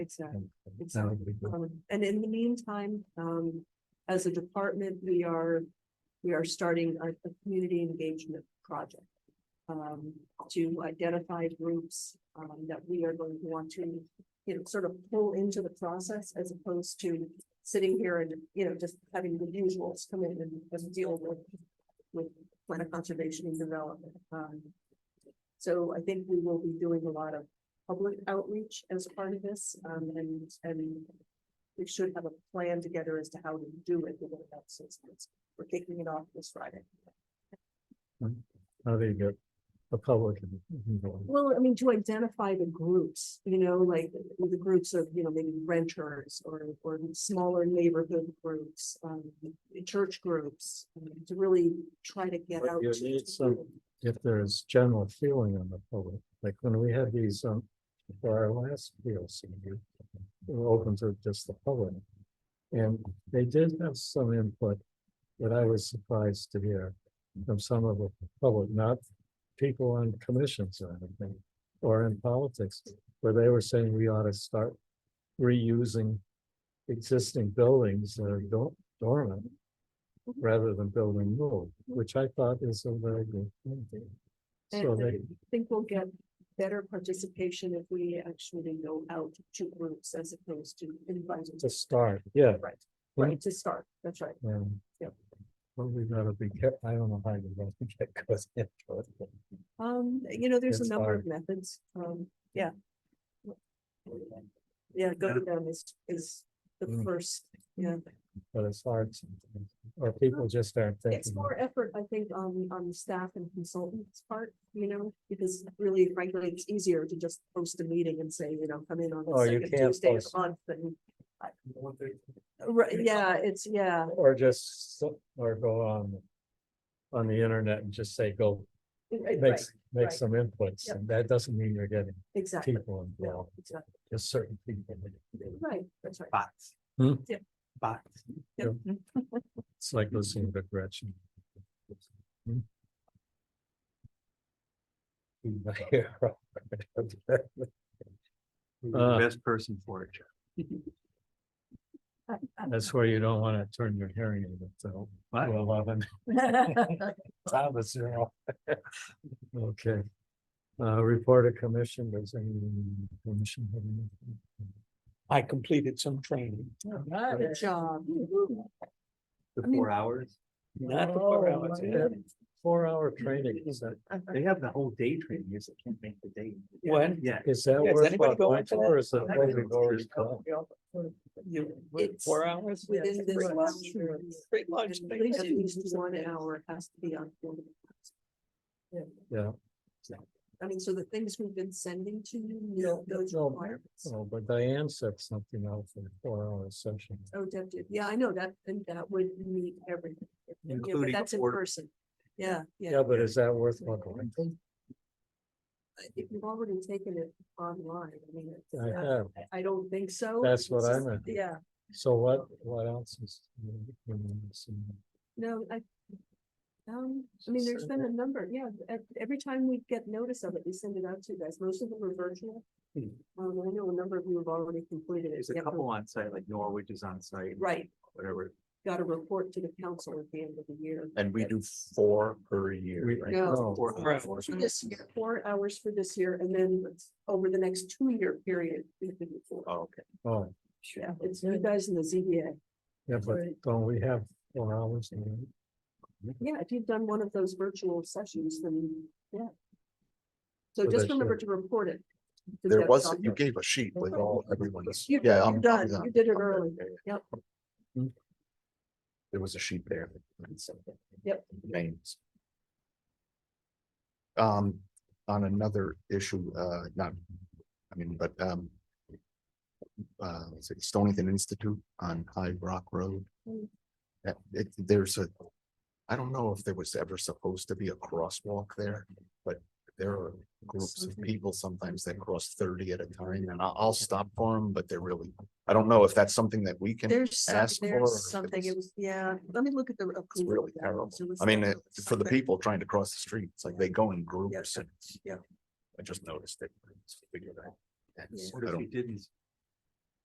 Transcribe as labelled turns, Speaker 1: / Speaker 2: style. Speaker 1: It's not. It's
Speaker 2: No,
Speaker 1: not.
Speaker 2: we do.
Speaker 1: Um, And in the meantime, um, as a department, we are, we are starting a, a community engagement project. Um, to identify groups, um, that we are going to want to, you know, sort of pull into the process as opposed to. Sitting here and, you know, just having the usuals come in and just deal with, with plant conservation and development, um. So I think we will be doing a lot of public outreach as part of this, um, and, and we should have a plan together as to how to do it. within about six months. We're kicking it off this Friday.
Speaker 2: How do Oh, you get a public? and- and go on?
Speaker 1: Well, I mean, to identify the groups, you know, like the groups of, you know, maybe renters or, or smaller neighborhood groups, um, church groups, um, to really try to get
Speaker 2: But
Speaker 1: out.
Speaker 2: you
Speaker 1: to-
Speaker 2: need some- If there's general feeling on the public, like when we had these, um, for our last PLC, we were open to just the public. And they did have some input that I was surprised to hear from some of the public, not people on commissions or anything, or in politics, where they were saying we ought to start reusing existing buildings that are dor- dormant rather than building new, which I thought is a very good thing.
Speaker 1: And
Speaker 2: So
Speaker 1: I
Speaker 2: they,
Speaker 1: think we'll get better participation if we actually go out to groups as opposed to inviting.
Speaker 2: to start, yeah.
Speaker 1: Right,
Speaker 2: Right.
Speaker 1: right, to start, that's right.
Speaker 2: Um,
Speaker 1: Yep.
Speaker 2: Well, we gotta be kept, I don't know how you don't think that goes into it. but-
Speaker 1: Um, you know, there's a
Speaker 2: It's
Speaker 1: number of methods, um, yeah. Yeah, go to them is, is the
Speaker 2: Mm.
Speaker 1: first, yeah,
Speaker 2: But it's hard, sometimes, or people just aren't
Speaker 1: it's
Speaker 2: thinking.
Speaker 1: more effort, I think, on, on the staff and consultants part, you know, because really frankly, it's easier to just post a meeting and say, you know, come in on
Speaker 2: Oh,
Speaker 1: the
Speaker 2: you
Speaker 1: second
Speaker 2: can't
Speaker 1: Tuesday of
Speaker 2: post.
Speaker 1: the month and. Right, yeah, it's, yeah,
Speaker 2: Or just, so- or go on, on the internet and just say, go,
Speaker 1: right,
Speaker 2: make,
Speaker 1: right,
Speaker 2: s- make
Speaker 1: right.
Speaker 2: some inputs,
Speaker 1: Yep.
Speaker 2: and that doesn't mean you're getting
Speaker 1: exactly,
Speaker 2: people
Speaker 1: no,
Speaker 2: involved,
Speaker 1: exactly,
Speaker 2: just certain people.
Speaker 1: right, that's right.
Speaker 3: Bots.
Speaker 2: Hmm?
Speaker 1: Yeah.
Speaker 3: Bots.
Speaker 1: Yep.
Speaker 2: It's like listening to Gretchen. Hmm?
Speaker 3: You're
Speaker 2: Uh,
Speaker 3: the Best person for it. Jeff.
Speaker 2: That's where you don't wanna turn your hearing aid up to
Speaker 3: What?
Speaker 2: eleven. Time is zero. Okay. Uh, report of commission, does any commission have anything?
Speaker 4: I completed some training,
Speaker 1: Good job.
Speaker 3: The
Speaker 1: I mean-
Speaker 3: four hours.
Speaker 4: not the four
Speaker 2: Oh,
Speaker 4: hours.
Speaker 2: like that Four hour training, is that,
Speaker 3: They have the whole day training. You just can't make the day.
Speaker 4: When?
Speaker 3: Yeah.
Speaker 2: is that
Speaker 4: Yeah, is
Speaker 2: worthwhile
Speaker 4: anybody
Speaker 2: going
Speaker 4: going for that?
Speaker 2: for, or is it?
Speaker 3: That
Speaker 2: only
Speaker 3: goes
Speaker 2: Doris
Speaker 3: through.
Speaker 2: Club?
Speaker 4: You,
Speaker 1: It's-
Speaker 4: four hours?
Speaker 1: within
Speaker 4: Yeah,
Speaker 1: this
Speaker 4: free
Speaker 1: lunch
Speaker 4: lunch,
Speaker 1: period.
Speaker 4: free
Speaker 1: At
Speaker 4: lunch, thank
Speaker 1: least at
Speaker 4: you.
Speaker 1: least one hour has to be on. board.
Speaker 2: Yeah,
Speaker 1: I mean, so the things we've been sending to you, you know, those
Speaker 2: no.
Speaker 1: requirements.
Speaker 2: oh, but Diane said something out for the four hour session.
Speaker 1: Oh, definitely. Yeah, I know that, and that would meet everything. Yeah, but
Speaker 3: Including
Speaker 1: That's in
Speaker 3: order.
Speaker 1: person. Yeah, yeah.
Speaker 2: Yeah, but is that worthwhile going?
Speaker 1: If you've already taken it online, I mean, it's
Speaker 2: I
Speaker 1: not-
Speaker 2: have,
Speaker 1: I- I don't think so.
Speaker 2: That's what
Speaker 1: It's
Speaker 2: I
Speaker 1: just-
Speaker 2: meant.
Speaker 1: Yeah,
Speaker 2: so what, what else is? in the- in the-
Speaker 1: no, I. Um, I mean, there's been a number, yeah, ev- every time we get notice of it, we send it out to you guys. Most of them are virtual.
Speaker 3: Hmm.
Speaker 1: Um, I know a number of you have already completed it.
Speaker 3: There's a
Speaker 1: Yeah, but-
Speaker 3: couple on site, like Norwich is on site.
Speaker 1: Right,
Speaker 3: Whatever.
Speaker 1: got a report to the council at the end of the year.
Speaker 5: And we do four per year,
Speaker 2: We-
Speaker 5: right?
Speaker 1: No,
Speaker 2: Oh.
Speaker 3: Four
Speaker 4: Right.
Speaker 3: hours.
Speaker 1: for this year, four hours for this year, and then over the next two-year period. we can do four.
Speaker 5: Oh, Okay,
Speaker 2: Oh,
Speaker 1: Yeah, it's you guys in the ZBA.
Speaker 2: yeah, but
Speaker 1: Right.
Speaker 2: don't we have four hours? in it?
Speaker 1: Yeah, if you've done one of those virtual sessions, then, yeah. So
Speaker 2: So
Speaker 1: just
Speaker 2: they
Speaker 1: remember to report it. to
Speaker 5: there
Speaker 1: Deb
Speaker 5: was, you
Speaker 1: Sutton.
Speaker 5: gave a sheet with all, everyone's,
Speaker 1: You-
Speaker 5: yeah.
Speaker 1: You're
Speaker 5: I'm
Speaker 1: done,
Speaker 5: I'm-
Speaker 1: you did it
Speaker 5: I'm- Mm-hmm.
Speaker 1: early. Yep.
Speaker 5: There was a sheet there.
Speaker 1: Yep.
Speaker 5: Names. Um, on another issue, uh, not, I mean, but, um. Uh, let's see, Stonington Institute on High Rock Road.
Speaker 1: Mm.
Speaker 5: That, it, there's a, I don't know if there was ever supposed to be a crosswalk there, but there are groups of
Speaker 1: Something.
Speaker 5: people sometimes that cross thirty at a time, and I'll, I'll stop for them, but they're really, I don't know if that's something that we can.
Speaker 1: There's, some-
Speaker 5: ask for or if
Speaker 1: there's something, it
Speaker 5: it's-
Speaker 1: was, yeah, let me look at the.
Speaker 5: It's
Speaker 1: approval
Speaker 5: really
Speaker 1: of that.
Speaker 5: terrible.
Speaker 1: So it's
Speaker 5: I mean,
Speaker 1: like-
Speaker 5: it- for the people trying to cross the street, it's like they go in groups.
Speaker 1: Yeah.
Speaker 5: and-
Speaker 1: Yeah.
Speaker 5: I just noticed it. It's figured out. And
Speaker 1: Yeah.
Speaker 5: so
Speaker 3: What
Speaker 5: I
Speaker 3: if you
Speaker 5: don't-
Speaker 3: didn't